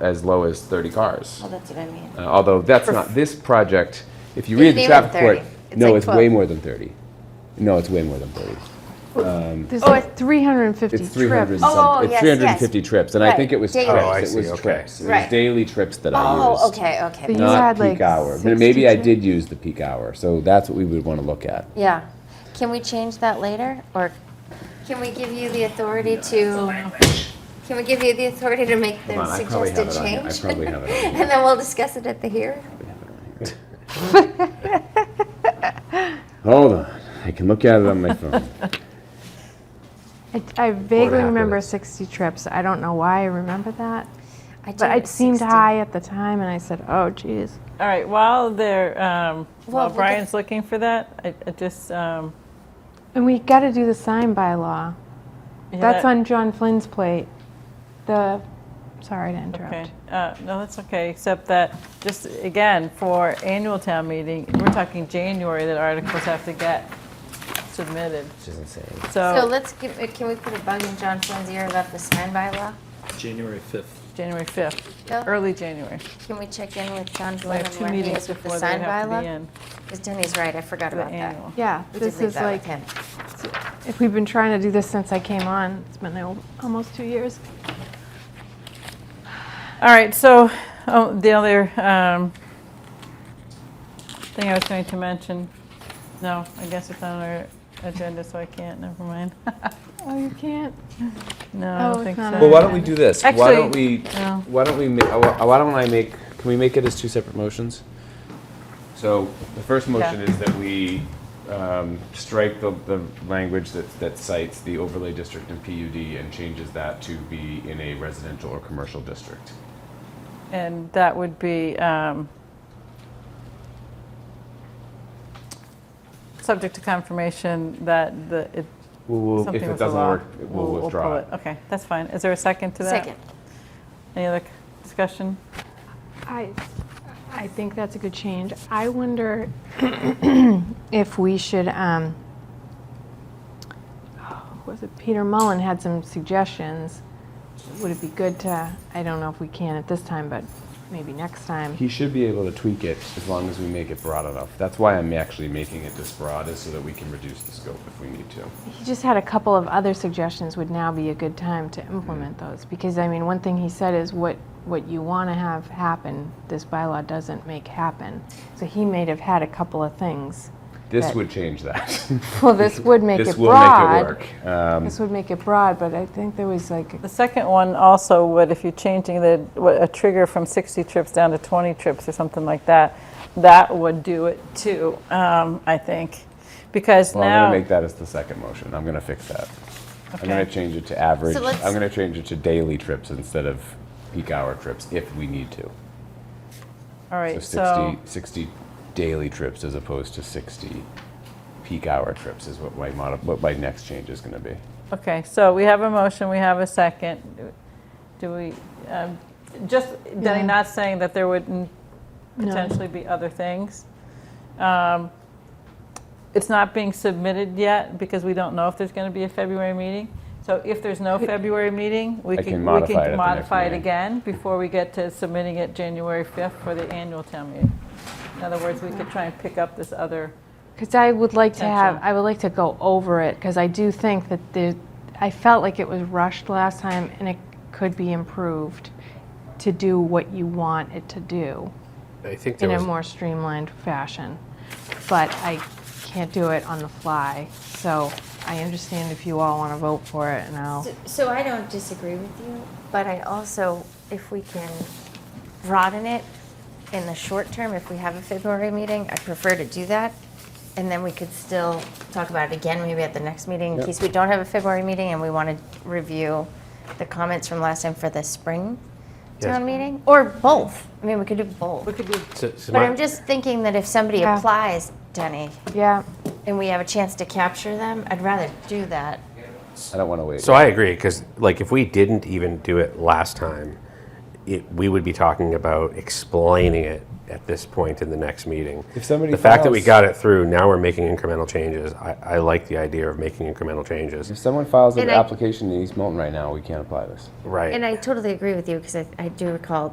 as low as 30 cars. Well, Oh, that's what I mean. Uh, although that's not, this project, if you read Isn't the even traffic report, 30. It's no, like it's way 12. more than 30. No, it's way more than 30. There's Oh, like 350 It's 300 and trips. Oh, some- oh, it's yes, 350 trips, and I Right. think it was Daily. trips, Oh, I it see, was okay. trips. It was Right. daily trips that I used. Oh, okay, okay. But you Not had, like, peak hour. M- 60 Maybe I trips. did use the peak hour, so that's what we would want to look at. Yeah. Can we change that later, or can we give you the authority to? Can we give you the authority to make the Hold on, I probably have suggested it on here. I change? probably have it on and then we'll discuss it at the hearing. Hold on, I can look at it on my phone. I, Oh. I vaguely happened. remember 60 trips. I don't know why I remember that, I do but it at seemed 60. high at the time, and I said, "Oh, geez." All right, while they're, um, Well, while we could- Brian's looking for that, I, I just, um, And we got to do the sign bylaw. yeah, That's that- on John Flynn's plate. The, sorry to interrupt. Okay, uh, no, that's okay, except that, just again, for annual town meeting, we're talking January that articles have to get submitted. Which is insane. So So, let's give, uh, can we put a bug in John Flynn's ear about the sign bylaw? January 5th. January 5th, Yeah. early January. Can we check in with John We Flynn have and two where he meetings is with the before they sign have to be bylaw? in, Because Denny's right, I forgot the about that. annual. Yeah, We did this leave is that with like him. if we've been trying to do this since I came on. It's been al- almost two years. All right, so, oh, the other, um, thing I was going to mention, no, I guess it's on our agenda, so I can't, never mind. Oh, you can't. No, Oh, I it's don't think so. not on Well, why don't we do this? Why don't Actually, we, no. why don't we, ma- uh, why don't I make, can we make it as two separate motions? So the first motion Yeah. is that we um, strike the, the language that, that cites the overlay district and PUD and changes that to be in a residential or commercial district. And that would be um, subject to confirmation that the, it- We'll, something if it with the doesn't law. work, we'll pull withdraw it. it. Okay, that's fine. Is there a second to that? Second. Any other c- discussion? I, I think that's a good change. I wonder if we should, um, oh, was it Peter Mullen had some suggestions? Would it be good to, I don't know if we can at this time, but maybe next time. He should be able to tweak it as long as we make it broad enough. That's why I'm actually making it this broad is so that we can reduce the scope if we need to. He just had a couple of other suggestions, would now be a good time to implement those. Because, I mean, one thing he said is what, what you want to have happen, this bylaw doesn't make happen. So he may have had a couple of things. This That- would change that. Well, this would make it This broad. will make it work. This would make it broad, but I think there was like, The second one also would, if you're changing the, what, a trigger from 60 trips down to 20 trips or something like that, that would do it too, um, I think. Because Well, I'm now, gonna make that as the second motion. I'm gonna fix that. I'm gonna Okay. change it to average. So let's- I'm gonna change it to daily trips instead of peak hour trips if we need to. all So right, 60, so, 60 daily trips as opposed to 60 peak hour trips is what my mod, what my next change is gonna be. okay, so we have a motion, we have a second. Do we, um, just, Denny, Yeah. not saying that there wouldn't No. potentially be other things. Um, It's not being submitted yet because we don't know if there's going to be a February meeting. So if there's no February meeting, we I could, can we modify it at the could next modify it meeting. again before we get to submitting it January 5th for the annual town meeting. In other words, we could try and pick up this other, because I would like to have, Potential. I would like to go over it, because I do think that the, I felt like it was rushed last time, and it could be improved to do what you want it to do I think there in a was, more streamlined fashion. But I can't do it on the fly, so I understand if you all want to vote for it, and I'll, So- So I don't disagree with you, but I also, if we can broaden it in the short term, if we have a February meeting, I prefer to do that. And then we could still talk about it again, maybe at the next meeting, in case we don't have a February meeting and we want to review the comments from last time for the spring town meeting, or both. I mean, we could do both. we could do so- so But my- I'm just thinking that if somebody Yeah. applies, Denny, yeah. and we have a chance to capture them, I'd rather do that. I don't wanna wait. so I agree because like if we didn't even do it last time, it, we would be talking about explaining it at this point in the next meeting. If somebody the fact that we files- got it through, now we're making incremental changes. I, I like the idea of making incremental If changes. someone files an And I- application in East Moulton right now, we can't apply this. Right. And I totally agree with you because I, I do recall